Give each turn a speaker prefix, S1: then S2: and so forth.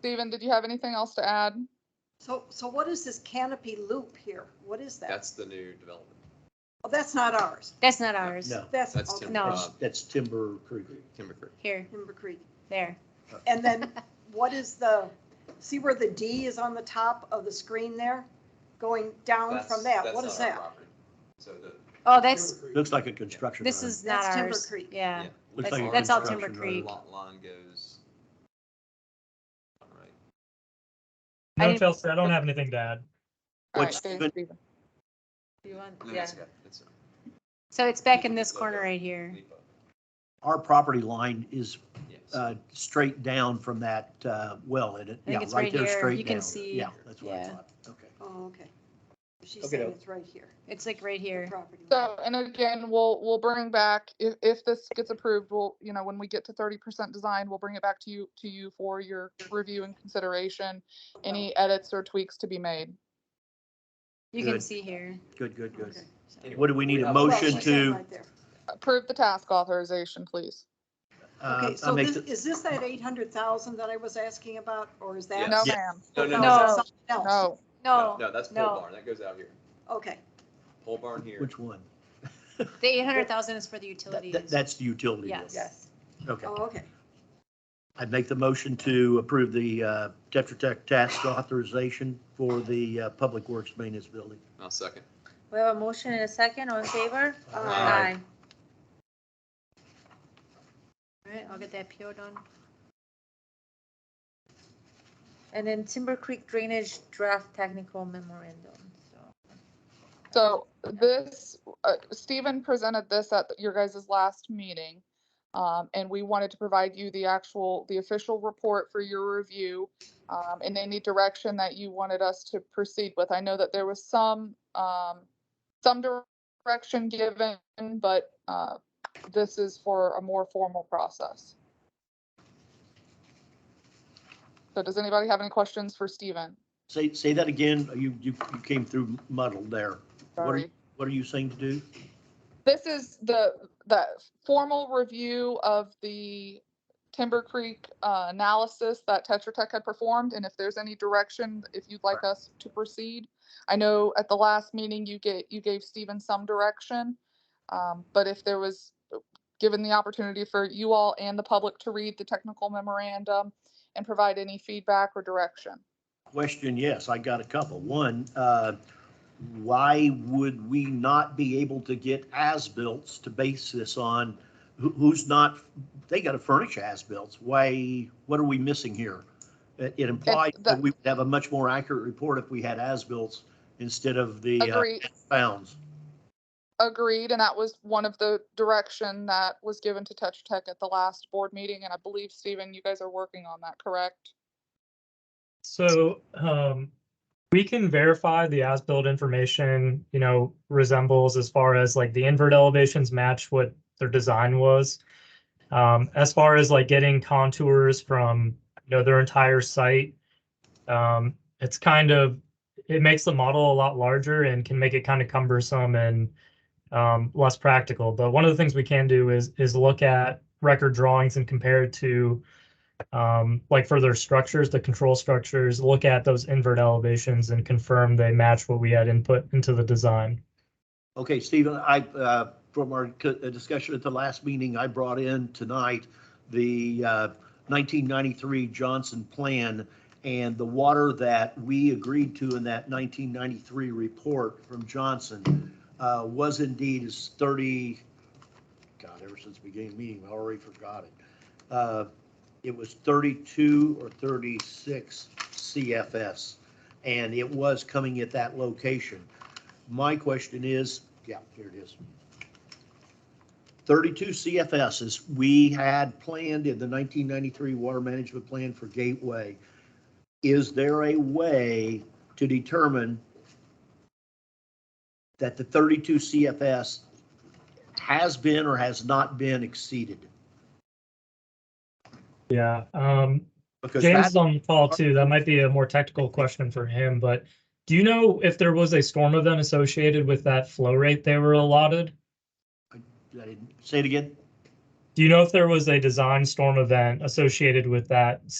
S1: Steven, did you have anything else to add?
S2: So, so what is this canopy loop here? What is that?
S3: That's the new development.
S2: Oh, that's not ours.
S4: That's not ours.
S5: No,
S2: That's,
S3: That's
S2: okay.
S3: Tim-
S4: No.
S5: that's, that's Timber Creek.
S3: Timber Creek.
S4: Here,
S2: Timber Creek.
S4: there.
S2: And then what is the, see where the D is on the top of the screen there? Going down
S3: That's-
S2: from that,
S3: that's
S2: what
S3: not
S2: is
S3: our
S2: that?
S3: property. So the
S4: Oh, that's,
S5: Looks like a construction.
S4: this
S5: line.
S4: is not
S2: That's Timber
S4: ours.
S2: Creek.
S4: Yeah.
S3: Yeah.
S5: Looks
S4: that's-
S5: like a
S4: that's all
S5: construction
S4: Timber
S5: line.
S4: Creek.
S3: lot line goes. Right.
S4: I
S6: No,
S4: didn't-
S6: Chelsea, I don't have anything to add.
S1: All right,
S5: What's
S1: thanks,
S5: the-
S1: Steven.
S4: You want-
S3: No,
S4: yeah.
S3: that's okay. That's all right.
S4: So it's back in this corner right here.
S3: Leap up.
S5: Our property line is
S3: Yes.
S5: uh, straight down from that uh, well in it.
S4: I think
S5: Yeah,
S4: it's
S5: right
S4: right
S5: there,
S4: here.
S5: straight
S4: You can
S5: down.
S4: see-
S5: Yeah, that's what I
S4: yeah.
S5: thought. Okay.
S2: Oh, okay. She's
S5: Okay,
S2: saying
S5: no.
S2: it's right here,
S4: It's like right here.
S2: property. line.
S1: So, and again, we'll, we'll bring back, if, if this gets approved, we'll, you know, when we get to thirty percent design, we'll bring it back to you, to you for your review and consideration. Any edits or tweaks to be made.
S4: You can
S5: Good.
S4: see here.
S5: Good, good, good.
S2: Okay.
S3: Anyway,
S5: What do we need? A
S3: have-
S2: Well,
S5: motion
S2: she's saying
S5: to,
S2: right there.
S1: Approve the task authorization, please.
S5: uh,
S2: Okay,
S5: I
S2: so
S5: make,
S2: this,
S5: the-
S2: is this that eight hundred thousand that I was asking about, or is that?
S1: No,
S5: Yeah.
S1: ma'am,
S3: No, no,
S4: No.
S3: no.
S2: is that something
S1: no.
S2: else?
S4: No,
S3: No, that's
S4: no.
S3: pole barn. That goes out here.
S2: Okay,
S3: Pole barn here.
S5: which one?
S4: the eight hundred thousand is for the
S5: That-
S4: utilities.
S5: that- That's the utility. bill.
S4: Yes.
S2: yes,
S5: Okay.
S2: oh, okay.
S5: I make the motion to approve the uh, Tetra Tech task authorization for the uh, Public Works Maintenance Building.
S3: I'll second.
S7: We have a motion and a second, all in favor?
S2: Uh,
S3: Aye.
S4: All right, I'll get that PO done.
S7: And then Timber Creek Drainage Draft Technical Memorandum, so.
S1: So this, uh, Stephen presented this at your guys' last meeting. Um, and we wanted to provide you the actual, the official report for your review. Um, and any direction that you wanted us to proceed with. I know that there was some, um, some direction given, but, uh, this is for a more formal process. So does anybody have any questions for Stephen?
S5: Say, say that again. You, you you came through muddled there. What are,
S1: Sorry.
S5: you- what are you saying to do?
S1: This is the, the formal review of the Timber Creek uh, analysis that Tetra Tech had performed, and if there's any direction, if you'd like us to proceed. I know at the last meeting, you gave, you gave Stephen some direction, um, but if there was, given the opportunity for you all and the public to read the technical memorandum and provide any feedback or direction.
S5: Question, yes, I got a couple. One, uh, why would we not be able to get as-bills to base this on? Who- Who's not, they got to furnish as-bills. Why, what are we missing here? It it implied
S1: the-
S5: that we would have a much more accurate report if we had as-bills instead of the uh,
S1: Agreed.
S5: bounds.
S1: Agreed, and that was one of the direction that was given to Tetra Tech at the last board meeting, and I believe, Stephen, you guys are working on that, correct?
S6: So um, we can verify the as-built information, you know, resembles as far as like the invert elevations match what their design was. Um, as far as like getting contours from, you know, their entire site, um, it's kind of, it makes the model a lot larger and can make it kind of cumbersome and um, less practical. But one of the things we can do is, is look at record drawings and compare it to um, like for their structures, the control structures, look at those invert elevations and confirm they match what we had input into the design.
S5: Okay, Stephen, I, uh, from our co- uh, discussion at the last meeting, I brought in tonight the uh, 1993 Johnson Plan and the water that we agreed to in that 1993 report from Johnson uh, was indeed is 30, God, ever since we beginning of the meeting, I already forgot it. Uh, It was 32 or 36 CFS, and it was coming at that location. My question is, yeah, here it is. 32 CFSs we had planned in the 1993 Water Management Plan for Gateway. Is there a way to determine that the 32 CFS has been or has not been exceeded?
S6: Yeah. Um,
S5: Because
S6: James
S5: that,
S6: is on the call too. That might be a more technical question for him, but do you know if there was a storm event associated with that flow rate they were allotted?
S5: I didn't- say it again?
S6: Do you know if there was a design storm event associated with that